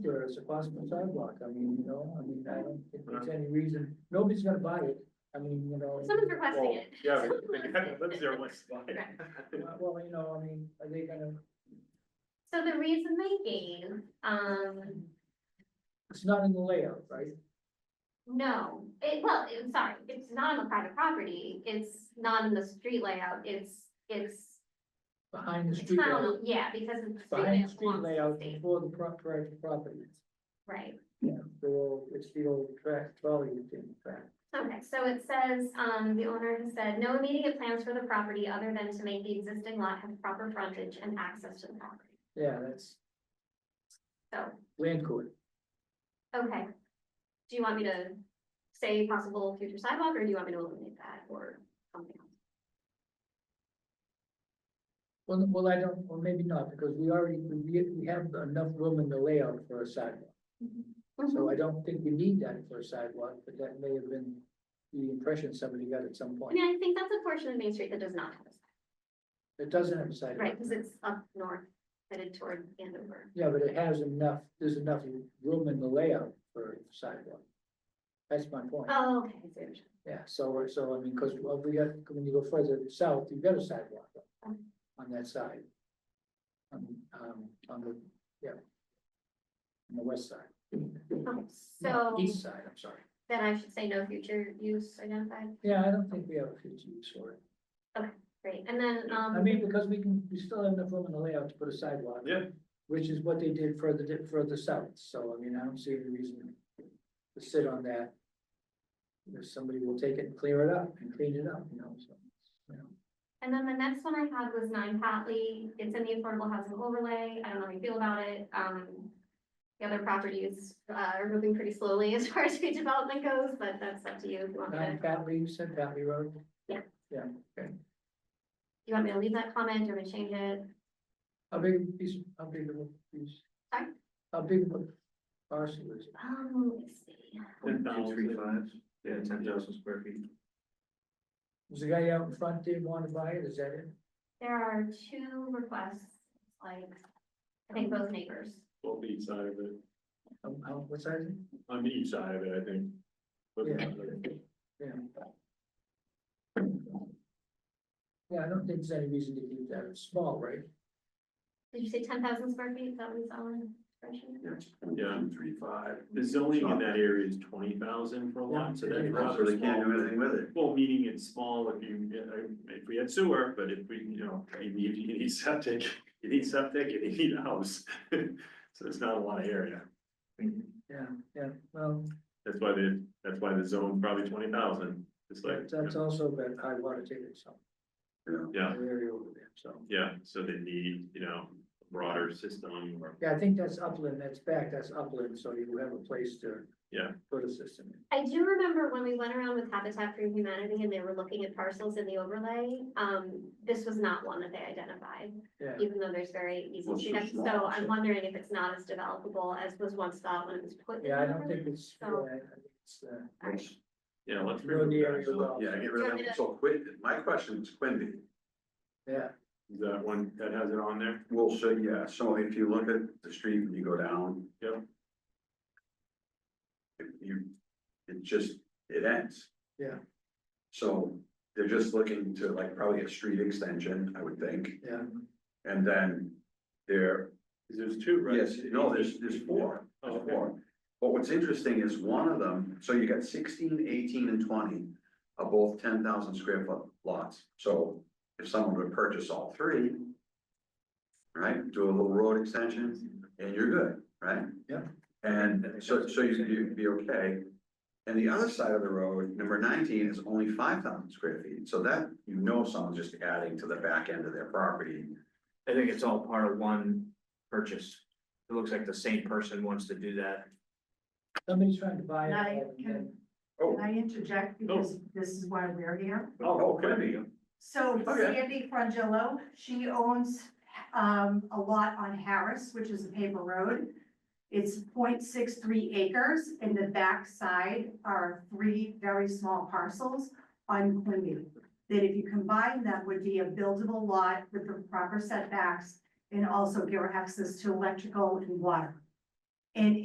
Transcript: or it's a possible sidewalk, I mean, you know, I mean, I don't think there's any reason, nobody's gonna buy it, I mean, you know. Someone's requesting it. Yeah, but the guy that lives there wants to buy it. Well, you know, I mean, are they gonna, So the reason they gave, um, it's not in the layout, right? no, it, well, I'm sorry, it's not on the private property, it's not in the street layout, it's, it's. Behind the it's street not on layout, the- Yeah, because it's. behind the street belongs to the layout state, before the pro- private property. Right, Yeah, the old, it's the old track, trolley thing, track. okay, so it says, um, the owner has said, no immediate plans for the property other than to make the existing lot have proper frontage and access to the property. yeah, that's So, land court. okay, do you want me to say possible future sidewalk, or do you want me to eliminate that, or something else? Well, well, I don't, or maybe not, because we already, we, we have enough room in the layout for a sidewalk. So I don't think we need that for a sidewalk, but that may have been the impression somebody got at some I point. mean, I think that's a portion of Main Street that does not have a It doesn't have a sidewalk. sidewalk, right, because it's up north headed toward Andover. Yeah, but it has enough, there's enough room in the layout for a sidewalk. That's my point. Oh, okay, I see what you're saying. Yeah, so, we're- so I mean, because we got, when you go further south, you've got a sidewalk Um. on that side. On, um, on the, yeah. On the west side. Okay, No, Um, So East side, I'm sorry. then I should say no future use identified, Yeah, I don't think we have a future use for it. great, and then, um. I mean, because we can, we still have enough room in the layout to put a sidewalk. Yeah. Which is what they did further, di- further south, so I mean, I don't see any reason to sit on that. If somebody will take it and clear it up and clean it up, you know, so, you know. And then the next one I had was nine Hatley, it's in the affordable housing overlay, I don't know how you feel about it, um. The other properties, uh, are moving pretty slowly as far as redevelopment goes, but that's up to you, if you want me to, Nine do Patley, you said Patley Road? Yeah. Yeah, you want me to leave that comment, do you want me to change it? how big a piece, how big of a piece? Sorry? How big of a parcel is it? Um, let's see, Ten thousand. yeah, ten thousand square feet. Was the guy out in front didn't want to buy it, is that it? there are two requests, like, I think both neighbors. Both each side of it, Um, how, what size is it? on each side of it, I think. But Yeah. Yeah. Yeah, I don't think there's any reason to keep that small, right? Did you say ten thousand square feet, Is that was on the spreadsheet? Yeah. The zoning in that area is twenty thousand for a lot, so that's So rather they can't do small. anything with it. Well, meaning it's small if you, uh, if we had sewer, but if we, you know, you need, you need septic, you need septic, you need a house. So there's not a lot of area. Yeah, yeah, well, That's why the, that's why the zone probably twenty thousand, it's like, that's also about high water table, so. yeah, the Area over there, so. yeah, so they need, you know, a broader system or. Yeah, I think that's upland, that's back, that's upland, so you have a place to. Yeah. Put a system in. I do remember when we went around with Habitat for Humanity and they were looking at parcels in the overlay, um, this was not one that they identified. Yeah. Even though there's very easy Well, to it's check, just not, so I'm so- wondering if it's not as developable as was once thought when it was put. in Yeah, I the don't overlay. think it's, yeah, So- I think it's, uh, Yeah, let's. Know the remove area that. well. Yeah, get rid of it. So Quin, my question is Quimby. yeah, Is that one that has it on there? Well, so, yeah, so if you look at the street and you go down. Yep. it- You, it just, it ends. Yeah. So they're just looking to like probably a street extension, I would think, yeah, and then they're Cause there's two, right? Yes, no, there's, there's four, Oh, there's okay. four. But what's interesting is one of them, so you got 16, 18, and twenty are both ten thousand square foot lots. So if someone would purchase all three, right, do a little road extension, and you're good, right? Yeah. And so, so you, you'd be okay. And the other side of the road, number nineteen, is only five thousand square feet, so that, you know, someone's just adding to the back end of their property. I think it's all part of one purchase. It looks like the same person wants to do that. somebody's trying to buy Now, it. can- and- Oh, Can I interject because this is why we're here? oh, okay. So Okay. Sandy Frangillo, she owns um a lot on Harris, which is a paper road. It's 0.63 acres and the backside are three very small parcels on Quimby. That if you combine them would be a buildable lot with the proper setbacks and also give her access to electrical and water. And